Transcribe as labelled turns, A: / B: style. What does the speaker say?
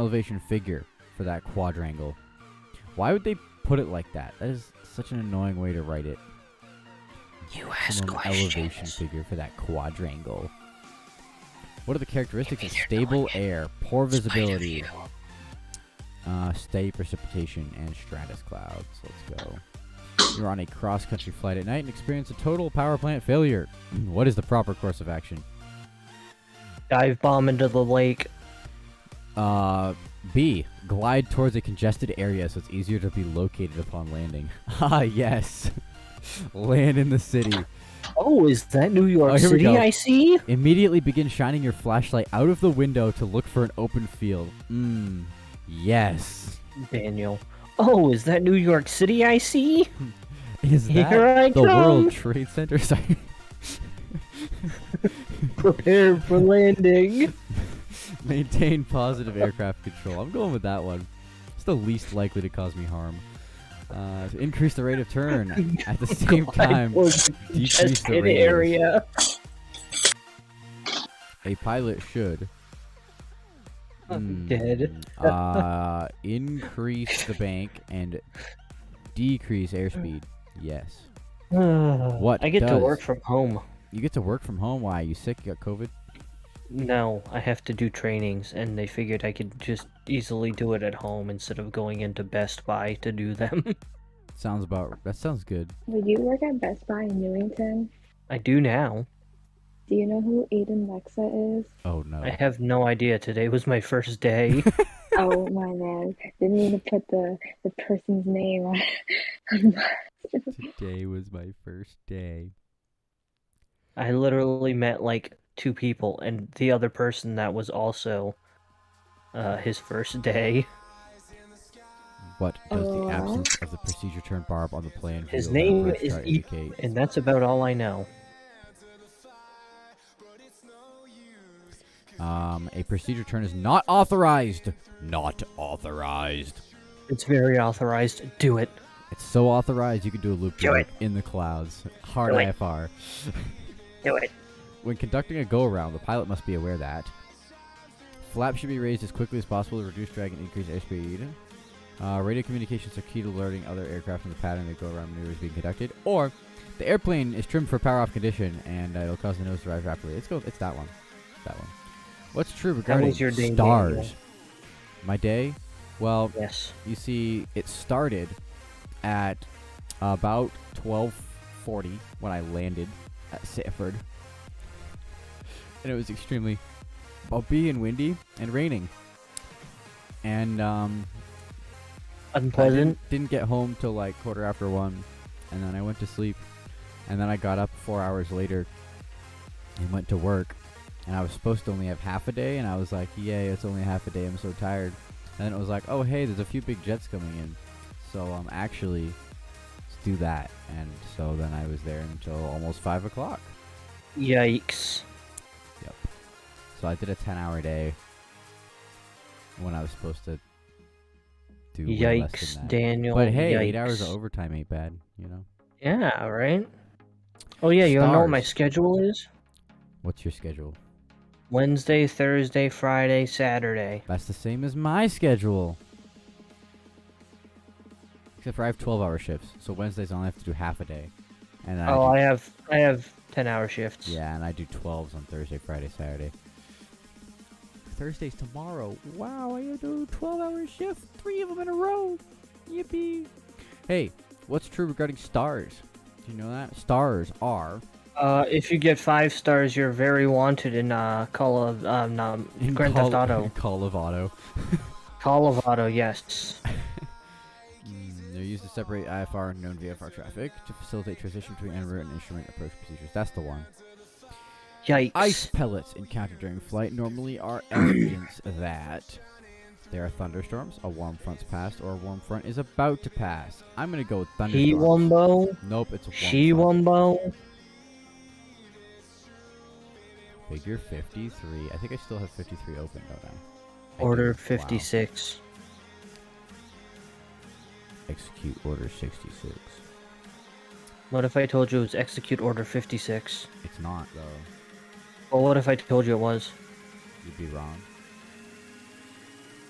A: elevation figure for that quadrangle. Why would they put it like that? That is such an annoying way to write it.
B: You
A: Some
B: ask
A: little elevation
B: questions.
A: figure for that quadrangle. What are the characteristics
B: Maybe
A: of
B: they're
A: stable
B: knowing it.
A: air, poor
B: Spider
A: visibility,
B: view.
A: uh, steady precipitation, and stratus clouds? Let's go. You're on a cross-country flight at night and experience a total power plant failure. What is the proper course of action?
C: Dive bomb into the lake.
A: Uh, B. Glide towards a congested area so it's easier to be located upon landing. Ah, yes. Land in the city.
C: Oh, is that New York
A: Oh, here we
C: City
A: go.
C: I see?
A: Immediately begin shining your flashlight out of the window to look for an open field. Mmm. Yes.
C: Daniel. Oh, is that New York City I see?
A: Is that
C: Here I
A: the
C: come.
A: World Trade Center? Sorry.
C: Prepare for landing.
A: Maintain positive aircraft control. I'm going with that one. It's the least likely to cause me harm. Uh, to increase the rate of turn at the same time.
C: Just
A: decrease the
C: in
A: radius.
C: area.
A: A pilot should.
C: I'm dead.
A: Mm, uh, increase the bank and decrease airspeed. Yes. What
C: I get to
A: does-
C: work from home.
A: You get to work from home. Why? You sick? You got COVID?
C: No, I have to do trainings, and they figured I could just easily do it at home instead of going into Best Buy to do them.
A: Sounds about. That sounds good.
D: Would you work at Best Buy in Newington?
C: I do now.
D: Do you know who Aiden Lexa is?
A: Oh no.
C: I have no idea. Today was my first day.
D: oh my man. Didn't even put the, the person's name on, on my-
A: Today was my first day.
C: I literally met like two people, and the other person that was also uh, his first day.
A: What does the
D: Aw.
A: absence of the procedure turn barb on the plan?
C: His
A: reveal that
C: name
A: birds
C: is
A: try to
C: E-
A: indicate?
C: And that's about all I know.
A: Um, a procedure turn is not authorized. Not authorized.
C: It's very authorized. Do it.
A: It's so authorized you can do a loop
B: Do
A: de
B: it.
A: loop in the clouds. Hard
B: Do it.
A: IFR.
B: Do it.
A: When conducting a go around, the pilot must be aware that flaps should be raised as quickly as possible to reduce drag and increase airspeed. Uh, radio communications are key to alerting other aircraft in the pattern that go around maneuver is being conducted. Or the airplane is trimmed for power off condition and uh, it'll cause the nose to rise rapidly. Let's go. It's that one. That one. What's true regarding
C: was your day,
A: stars?
C: Daniel?
A: My day? Well,
C: Yes.
A: you see it started at about 12:40 when I landed at Sanford. And it was extremely bumpy and windy and raining. And um I
C: Unpleasant.
A: didn't, didn't get home till like quarter after 1 and then I went to sleep and then I got up 4 hours later and went to work. And I was supposed to only have half a day and I was like, "Yay, it's only half a day. I'm so tired." And then it was like, oh, hey, there's a few big jets coming in. So um, actually, let's do that. And so then I was there until almost 5 o'clock.
C: Yikes.
A: So I did a 10 hour day when I was supposed to do way less than
C: Yikes,
A: that.
C: Daniel.
A: But hey,
C: yikes.
A: 8 hours of overtime ain't bad, you know?
C: Yeah, right? Oh, yeah, you wanna know what my
A: Stars.
C: schedule is?
A: What's your schedule?
C: Wednesday, Thursday, Friday, Saturday.
A: That's the same as my schedule. Except for I have 12 hour shifts. So Wednesdays I only have to do half a day. And then
C: oh,
A: I do
C: I have I have 10 hour shifts.
A: Yeah, and I do 12s on Thursday, Friday, Saturday. Thursday's tomorrow. Wow, I do 12 hour shift, three of them in a row. Yippee. Hey, what's true regarding stars? Do you know that? Stars are.
C: Uh, if you get five stars, you're very wanted in uh, Call of um, um, Grand
A: Call,
C: Theft Auto.
A: Call of Auto.
C: Call of Auto, yes.
A: Mm, they're used to separate IFR and known VFR traffic to facilitate transition between en route and instrument approach procedures. That's the one.
C: Yikes.
A: Ice pellets encountered during flight normally are evidence that there are thunderstorms, a warm front's passed, or a warm front is about to pass. I'm gonna go with
C: He
A: thunderstorms.
C: Wumbo.
A: Nope, it's a warm
C: She
A: front.
C: Wumbo.
A: Figure 53. I think I still have 53 open, don't I? I? do.
C: Order
A: Wow.
C: 56.
A: Execute order 66.
C: What if I told you it was Execute Order 56?
A: It's not though.
C: Well, what if I told you it was?
A: You'd be wrong.